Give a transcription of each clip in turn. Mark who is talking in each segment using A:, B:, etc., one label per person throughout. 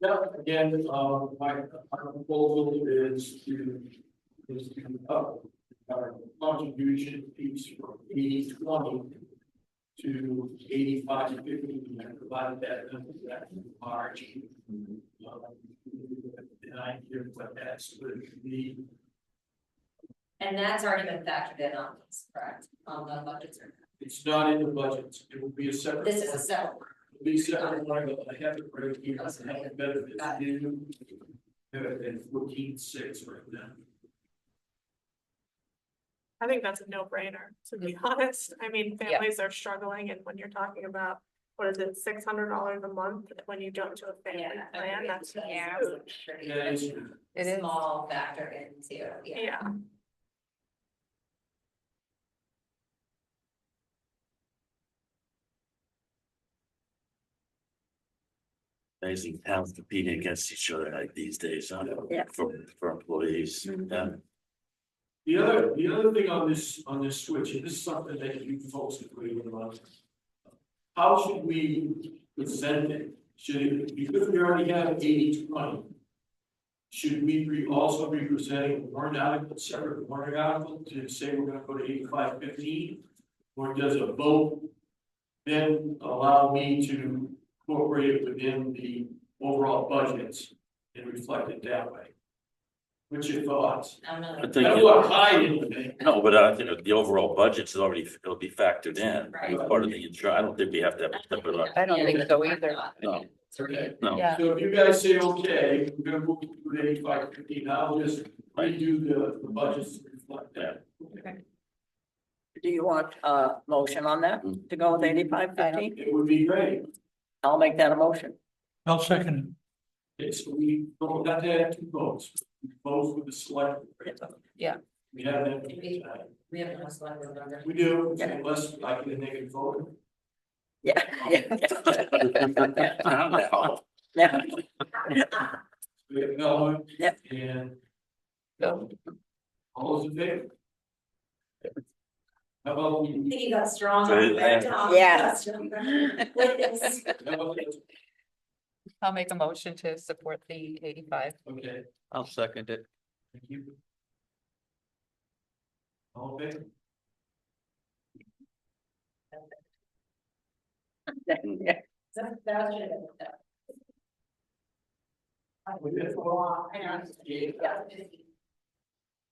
A: Yeah, again, uh, my, my proposal is to, is to up our contribution piece from eighty twenty to eighty-five fifty, and provide that number back to March. Um, And I hear what that's going to be,
B: And that's already been factored in on this, correct, on the budgets or,
A: it's not in the budget, it will be a separate.
B: this is a separate,
A: Lisa, I want to, I have it right here, I have it better than you. Have it at fourteen six right now.
C: I think that's a no brainer, to be honest. I mean,
B: Yeah.
C: families are struggling and when you're talking about. What is it, six hundred dollars a month when you don't do a family
B: yeah.
C: plan, that's
B: Yeah.
C: huge.
A: Yeah, it's,
D: It is.
B: Small factor into, yeah,
C: Yeah,
E: amazing towns competing against each other like these days, huh?
B: Yeah. Mm-hmm.
E: For, for employees, yeah.
A: the other, the other thing on this, on this switch, and this is something that you folks agree with us. How should we present it? Should it, because we already have eighty twenty. Should we be also be presenting warrant article, separate warrant article to say we're gonna go to eighty-five fifteen? Or does a vote then allow me to incorporate it within the overall budgets and reflect it that way? What's your thoughts?
B: I don't know.
E: I think-
A: That's what I didn't think.
E: No, but I think the overall budget is already, it'll be factored in as
B: Right.
E: part of the insurance. I don't think we have to have a separate, uh,
D: I don't
B: Yeah,
D: think so either.
E: No.
B: It's okay.
E: no.
D: Yeah,
A: So if you guys say, okay, we're gonna move to eighty-five fifteen, I'll just redo the, the budgets to reflect that.
F: Do you want a motion on that
E: Mm.
F: to go with eighty-five fifty?
A: It would be great,
F: I'll make that a motion.
G: I'll second
A: Okay, so we don't have to have two votes, We vote with the select.
D: Yeah.
A: We have that tonight.
B: We have no select board member.
A: We do, unless I get a negative vote.
F: Yeah. yeah, yeah.
E: No.
F: Yeah.
A: We have Melvin.
F: Yep.
A: And
D: so
A: all those in favor? How about
B: I
A: we,
B: think you got strong.
E: So it-
F: Yeah.
B: With this,
A: how about, this?
D: I'll make a motion to support the eighty-five.
A: okay,
G: I'll second it.
A: thank you. All in favor?
F: Yeah.
B: that's, that's it.
A: We did.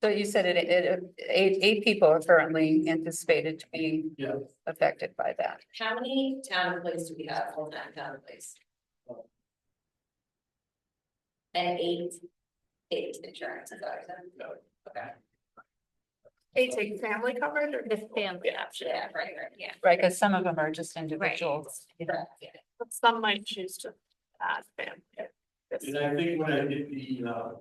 D: So you said it, it, eight, eight people are currently anticipated to be
A: Yeah.
D: affected by that.
B: How many town employees do we have, full time town employees? And eight, eight insurance, is that what you said? Okay.
C: they take family coverage or?
H: The family option,
B: Yeah, right, right, yeah.
H: yeah.
D: Right, because some of them are just individuals.
C: Some might choose to add family. This-
A: And I think when I did the, uh.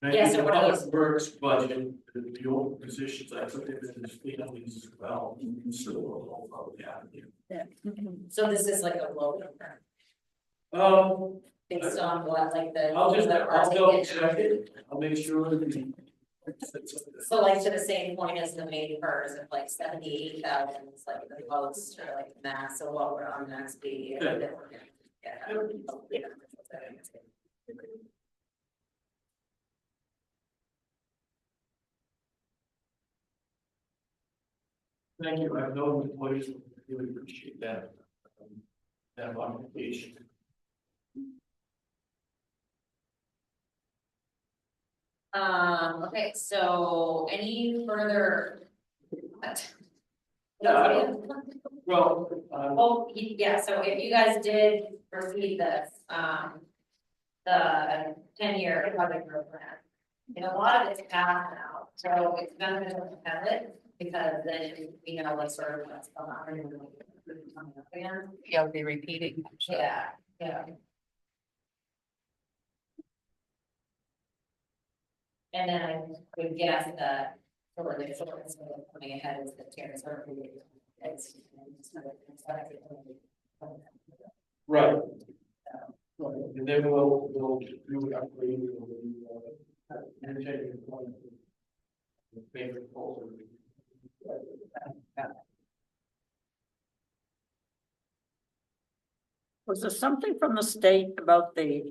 A: when I
B: Yeah,
A: did
B: so
A: the
B: what are
A: public
B: those?
A: works budget, the, the old positions, I put them in the families as well, so, I'll probably add them.
B: So this is like a low number,
A: Um,
B: based on what, like the.
A: I'll just,
B: the-
A: I'll double check it, I'll make sure that the.
B: So like to the same point as the main purse, if like seventy eight thousand is like the most or like max, so what we're on next be. and then we're gonna get out of it.
A: Thank you, I have no employees, really appreciate that. um, That modification.
B: Um, okay, so any further? What?
A: Yeah, I Well, uh,
B: Oh, y- yeah, so if you guys did receive this, um. The ten year project program. And a lot of it's passed now, so it's beneficial to have it because then we know like sort of what's going on. and like, who's coming up again.
D: Yeah, I'll be repeating.
B: Yeah, yeah. And then I would guess that for the shortness of it coming ahead is the terrace or it's. it's not a- it's not a-
A: right. Right, And then we'll, we'll do it, I believe, we'll, uh, entertain your point. Your Favorite folder.
F: Was there something from the state about the